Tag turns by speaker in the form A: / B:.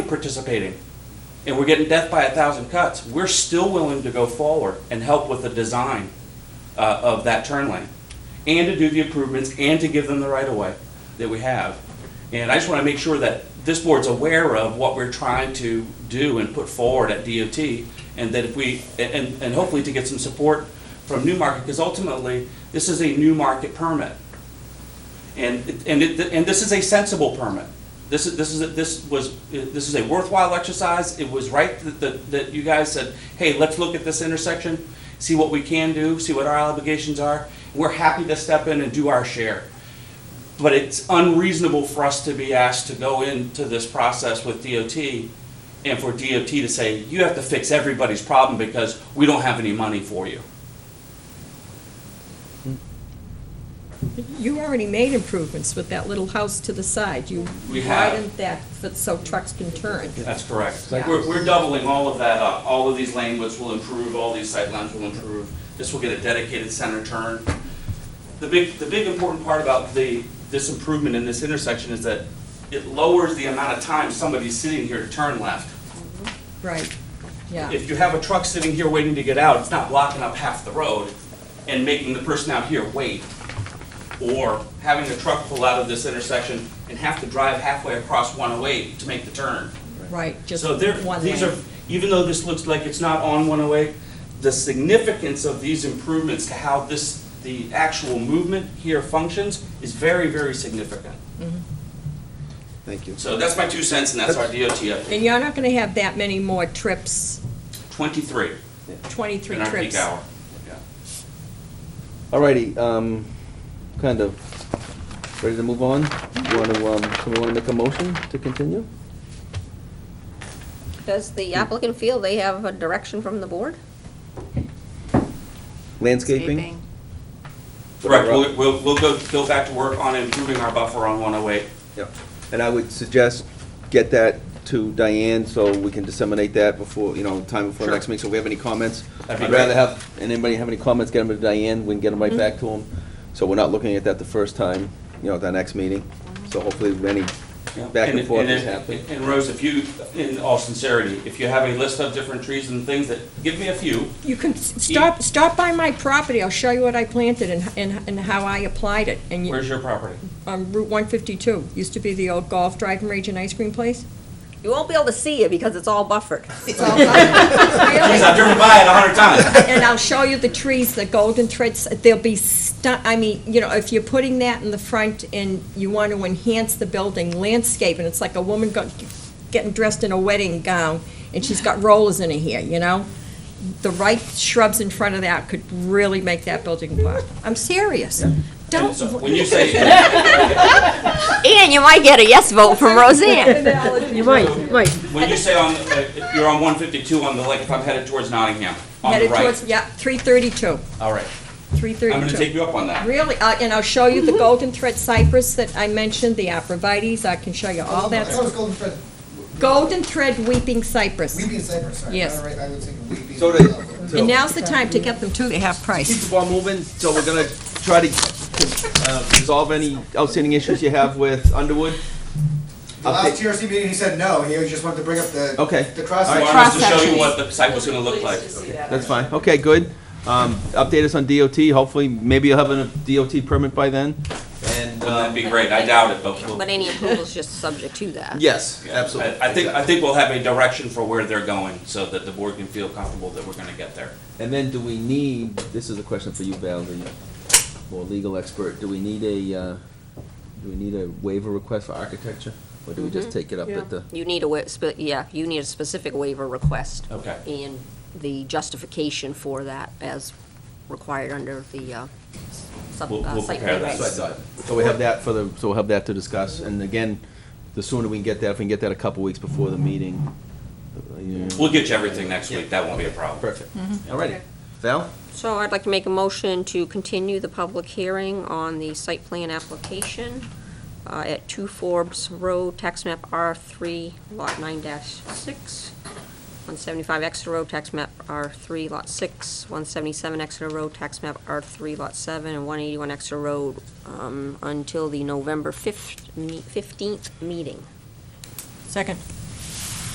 A: participating and we're getting death by a thousand cuts, we're still willing to go forward and help with the design uh, of that turn lane and to do the improvements and to give them the right of way that we have. And I just want to make sure that this board's aware of what we're trying to do and put forward at DOT and that if we, and, and hopefully to get some support from Newmarket, because ultimately, this is a new market permit. And, it- and it, and this is a sensible permit. This is, this is, this was, this is a worthwhile exercise. It was right that, that, that you guys said, hey, let's look at this intersection, see what we can do, see what our obligations are. We're happy to step in and do our share. But it's unreasonable for us to be asked to go into this process with DOT and for DOT to say, you have to fix everybody's problem because we don't have any money for you.
B: You already made improvements with that little house to the side. You
A: We have.
B: widened that f- so trucks can turn.
A: That's correct.
B: Yeah.
A: We're, we're doubling all of that up. All of these lane widths will improve, all these sight lines will improve. This will get a dedicated center turn. The big, the big important part about the, this improvement in this intersection is that it lowers the amount of time somebody's sitting here to turn left.
B: Right, yeah.
A: If you have a truck sitting here waiting to get out, it's not blocking up half the road and making the person out here wait. Or having a truck pull out of this intersection and have to drive halfway across 108 to make the turn.
B: Right, just
A: So there,
B: one
A: these are,
B: lane.
A: even though this looks like it's not on 108, the significance of these improvements to how this, the actual movement here functions is very, very significant.
C: Thank you.
A: So that's my two cents, and that's our DOT update.
B: And you're not gonna have that many more trips,
A: 23
B: twenty-three
A: in our peak
B: trips.
A: hour. Yeah.
C: Alrighty, um, kind of ready to move on. You want to, um, someone want to make a motion to continue? Hmm.
D: Does the applicant feel they have a direction from the board?
C: Landscaping?
A: Correct, we'll, we'll, we'll go, go back to work on improving our buffer on 108.
C: Yep. And I would suggest get that to Diane so we can disseminate that before, you know, time before
A: Sure.
C: next meeting. So if we have any comments,
A: That'd be
C: I'd rather
A: great.
C: have, and anybody have any comments, get them to Diane, we can get them right back to them. So we're not looking at that the first time, you know, at the next meeting. So hopefully any
A: Yeah.
C: back and forth is
A: if-
C: happening.
A: And Rose, if you, in all sincerity, if you have a list of different trees and things that, give me a few,
B: You can, s- stop, stop by my property, I'll show you what I planted and, and, and how I applied it. And you,
A: where's your property?
B: on Route one fifty-two, used to be the old golf driving range and ice cream place.
D: You won't be able to see it because it's all buffered.
B: It's all Really?
A: Geez, I've driven by it a hundred times.
B: And I'll show you the trees, the golden threads, they'll be stu, I mean, you know, if you're putting that in the front and you want to enhance the building landscape, and it's like a woman got, getting dressed in a wedding gown, and she's got rollers in her hair, you know? The right shrubs in front of that could really make that building pop. I'm serious.
A: And
B: Don't.
A: so When you say,
D: And you might get a yes vote from Roseanne.
B: You might.
A: When you say on, uh, if you're on one fifty-two on the lake, if I'm headed towards Nottingham, on the
B: Headed towards,
A: right.
B: yeah, three thirty-two,
A: All right,
B: three
A: I'm gonna take
B: thirty-two.
A: you up on that.
B: Really, uh, and I'll show you the golden thread cypress that I mentioned, the abrevieties, I can show you all that
E: That
B: stuff.
E: was Golden Thread,
B: Golden thread weeping cypress.
E: Weepy and Cypress, sorry.
B: Yes.
E: All right, I was thinking Weepy.
C: So
E: and-
C: to-
E: Okay.
B: And now's the time to get them to the half
C: keep the
B: price.
C: ball moving, so we're gonna try to uh, resolve any outstanding issues you have with Underwood.
E: The last TRC meeting, he said no, he just wanted to bring up the.
C: Okay.
E: The
A: I
E: cross.
A: wanted us to show you what the site was gonna look like.
C: That's fine, okay, good. Um, Update us on DOT, hopefully, maybe you'll have a DOT permit by then. And,
A: Wouldn't that
C: um,
A: be great? I doubt it, but we'll.
D: But any approval is just subject to that.
C: yes,
A: yeah,
C: absolutely.
A: I I think, I think we'll have a direction for where they're going, so that the board can feel comfortable that we're gonna get there.
C: And then do we need, this is a question for you, Val, the more legal expert, do we need a, uh, do we need a waiver request for architecture? Or do we just take it up at the?
D: You need a, wa- spe- yeah, you need a specific waiver request.
A: Okay.
D: And the justification for that as required under the uh, s- sub-
A: We'll-
D: uh,
A: we'll
D: site
A: prepare that.
D: plan
C: So I
D: regs.
C: thought, so we have that for the, so we'll have that to discuss, and again, the sooner we can get that, if we can get that a couple weeks before the meeting. uh, you know.
A: We'll get you everything next week, that won't be a problem.
C: Perfect, all righty. Val,
D: So I'd like to make a motion to continue the public hearing on the site plan application uh, at 2 Forbes Road, tax map R3, lot 9-6, 175 Exeter Road, tax map R3, lot 6, 177 Exeter Road, tax map R3, lot 7, and 181 Exeter Road, um, until the November 5th, me- 15th meeting.
B: Second.